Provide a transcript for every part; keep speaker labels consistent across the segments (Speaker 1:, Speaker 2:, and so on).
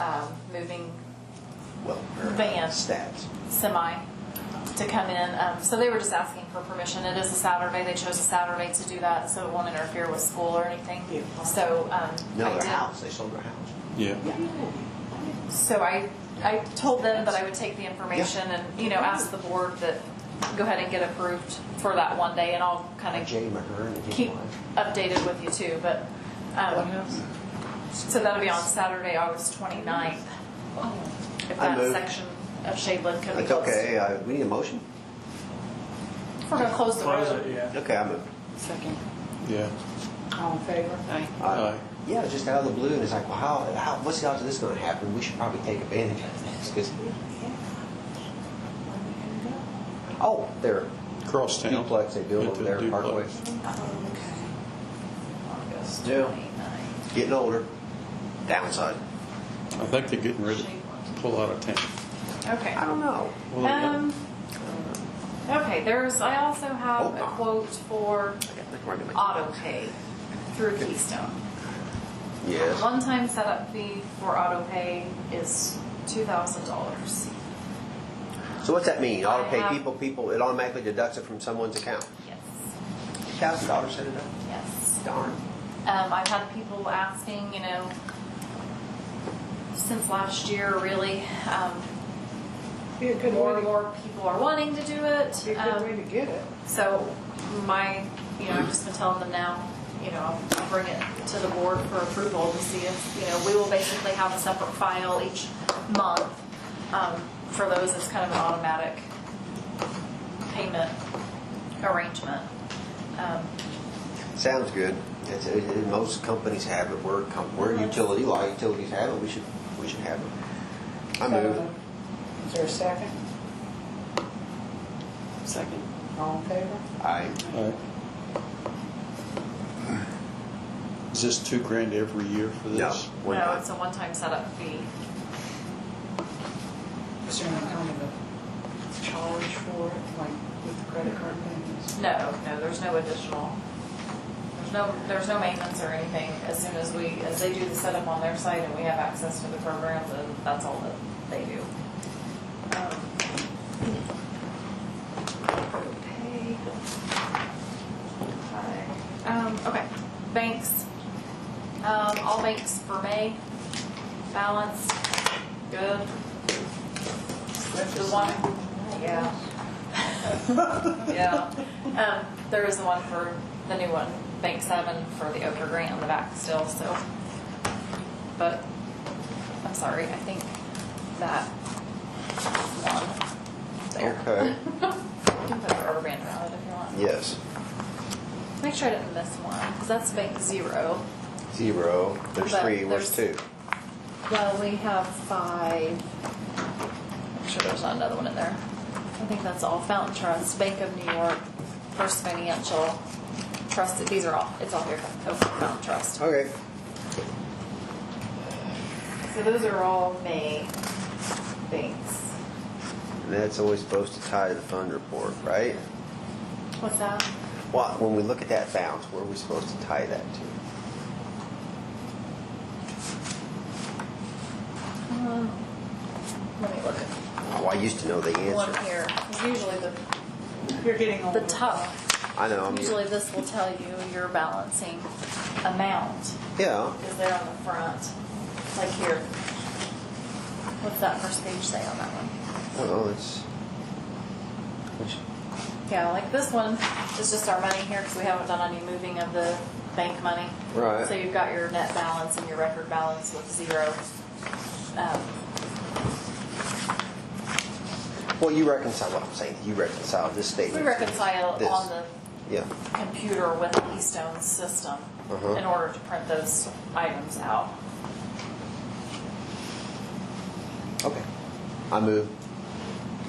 Speaker 1: um, moving
Speaker 2: well, or
Speaker 1: Van.
Speaker 2: stats.
Speaker 1: semi to come in. Um, so they were just asking for permission. It is a Saturday. They chose a Saturday to do that, so it won't interfere with school or anything. So um,
Speaker 2: No,
Speaker 1: I
Speaker 2: their
Speaker 1: did.
Speaker 2: house, they sold their house.
Speaker 3: Yeah.
Speaker 1: So I, I told them that I would take the information and, you know, ask the board that, go ahead and get approved for that one day, and I'll kind of
Speaker 2: Jay Mahern, if you
Speaker 1: keep
Speaker 2: want.
Speaker 1: updated with you too, but, um, so that'll be on Saturday, August 29th. If
Speaker 2: I
Speaker 1: that
Speaker 2: move.
Speaker 1: section of Shadeland can be
Speaker 2: That's
Speaker 1: closed.
Speaker 2: okay, uh, we need a motion?
Speaker 1: If We're gonna close the
Speaker 4: Close
Speaker 1: road.
Speaker 4: it, yeah.
Speaker 2: Okay, I move.
Speaker 5: Second.
Speaker 3: Yeah.
Speaker 5: All in favor? Aye.
Speaker 3: Aye.
Speaker 2: uh, Yeah, it's just out of the blue, and it's like, well, how, how, what's the odds of this gonna happen? We should probably take advantage of this, 'cause- Oh, there,
Speaker 3: Crosstown.
Speaker 2: duplex they build
Speaker 3: Into
Speaker 2: over there,
Speaker 3: duplex.
Speaker 2: Parkway.
Speaker 1: August
Speaker 2: Yeah.
Speaker 1: 29th.
Speaker 2: Getting older, downside.
Speaker 3: I think they're getting ready to pull out of town.
Speaker 1: Okay.
Speaker 2: I don't know.
Speaker 3: Well, they got-
Speaker 1: Um, okay, there's, I also have a quote for
Speaker 2: I gotta think where I'm gonna-
Speaker 1: auto pay through Keystone.
Speaker 2: Yes,
Speaker 1: One-time setup fee for auto pay is two thousand dollars.
Speaker 2: so what's that mean? Auto
Speaker 1: I
Speaker 2: pay
Speaker 1: have-
Speaker 2: people, people, it automatically deducts it from someone's account.
Speaker 1: Yes,
Speaker 2: Thousand dollars set it up?
Speaker 1: yes.
Speaker 2: Darn.
Speaker 1: Um, I've had people asking, you know, since last year, really, um,
Speaker 5: Be a good
Speaker 1: more
Speaker 5: way
Speaker 1: and
Speaker 5: to,
Speaker 1: more people are wanting to do
Speaker 5: be
Speaker 1: it.
Speaker 5: a good
Speaker 1: Um,
Speaker 5: way to get it.
Speaker 1: So my, you know, I've just been telling them now, you know, I'll- I'll bring it to the board for approval to see if, you know, we will basically have a separate file each month. um, For those, it's kind of an automatic payment arrangement. Um,
Speaker 2: Sounds good. It's, it, it- most companies have it. We're, a com- we're a utility, a lot of utilities have it. We should, we should have it. I move.
Speaker 5: Uh, Is there a second?
Speaker 2: Second.
Speaker 5: All in favor?
Speaker 2: I,
Speaker 3: Aye. Is this two grand every year for
Speaker 2: no,
Speaker 3: this?
Speaker 2: we're
Speaker 1: No, it's
Speaker 2: not.
Speaker 1: a one-time setup fee.
Speaker 5: Is there any kind of a charge for it, like with the credit card payments?
Speaker 1: No, no, there's no additional, there's no, there's no maintenance or anything. As soon as we, as they do the setup on their site and we have access to the program, then that's all that they do. Um, okay. Hi. Um, okay, banks. Um, all banks for May, balance, good. The one, yeah. Yeah. Um, there is the one for the new one, Bank Seven for the Oprah grant on the back still, so. But I'm sorry, I think that one there.
Speaker 2: Okay.
Speaker 1: You can put the rubber band around it if you want.
Speaker 2: Yes.
Speaker 1: Make sure I didn't miss one, because that's Bank Zero.
Speaker 2: Zero. There's
Speaker 1: But
Speaker 2: three. Where's two?
Speaker 1: there's- Well, we have five. I'm sure there's not another one in there. I think that's all. Fountain Trust, Bank of New York, First Financial, Trust, these are all, it's all here, Oh, Fountain Trust.
Speaker 2: Okay.
Speaker 1: So those are all May banks.
Speaker 2: And that's always supposed to tie to the fund report, right?
Speaker 1: What's that?
Speaker 2: Well, when we look at that balance, where are we supposed to tie that to?
Speaker 1: Um, Let me look at
Speaker 2: Oh, I used to know the
Speaker 1: one
Speaker 2: answer.
Speaker 1: here. 'Cause Usually the,
Speaker 5: You're getting older.
Speaker 1: the top,
Speaker 2: I know. I'm-
Speaker 1: usually this will tell you your balancing amount
Speaker 2: Yeah.
Speaker 1: is there on the front, like here. What's that first page say on that one?
Speaker 2: Oh, Well, it's.
Speaker 1: Yeah, like this one is just our money here because we haven't done any moving of the bank money.
Speaker 2: Right.
Speaker 1: So you've got your net balance and your record balance with zero. Um,
Speaker 2: Well, you reconcile what I'm saying. You reconcile this
Speaker 1: We
Speaker 2: statement.
Speaker 1: reconcile
Speaker 2: This.
Speaker 1: on the
Speaker 2: Yeah.
Speaker 1: computer with Keystone's system
Speaker 2: Uh-huh.
Speaker 1: in order to print those items out.
Speaker 2: Okay. I move.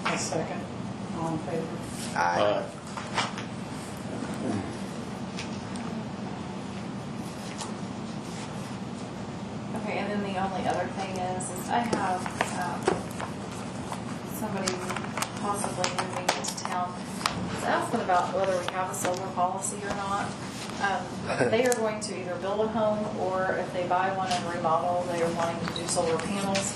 Speaker 5: A second. All in favor?
Speaker 2: I.
Speaker 3: Aye.
Speaker 1: Okay, and then the only other thing is, is I have, um, somebody possibly moving into town. I was asking about whether we have a solar policy or not. Um, They are going to either build a home, or if they buy one and remodel, they are wanting to do solar panels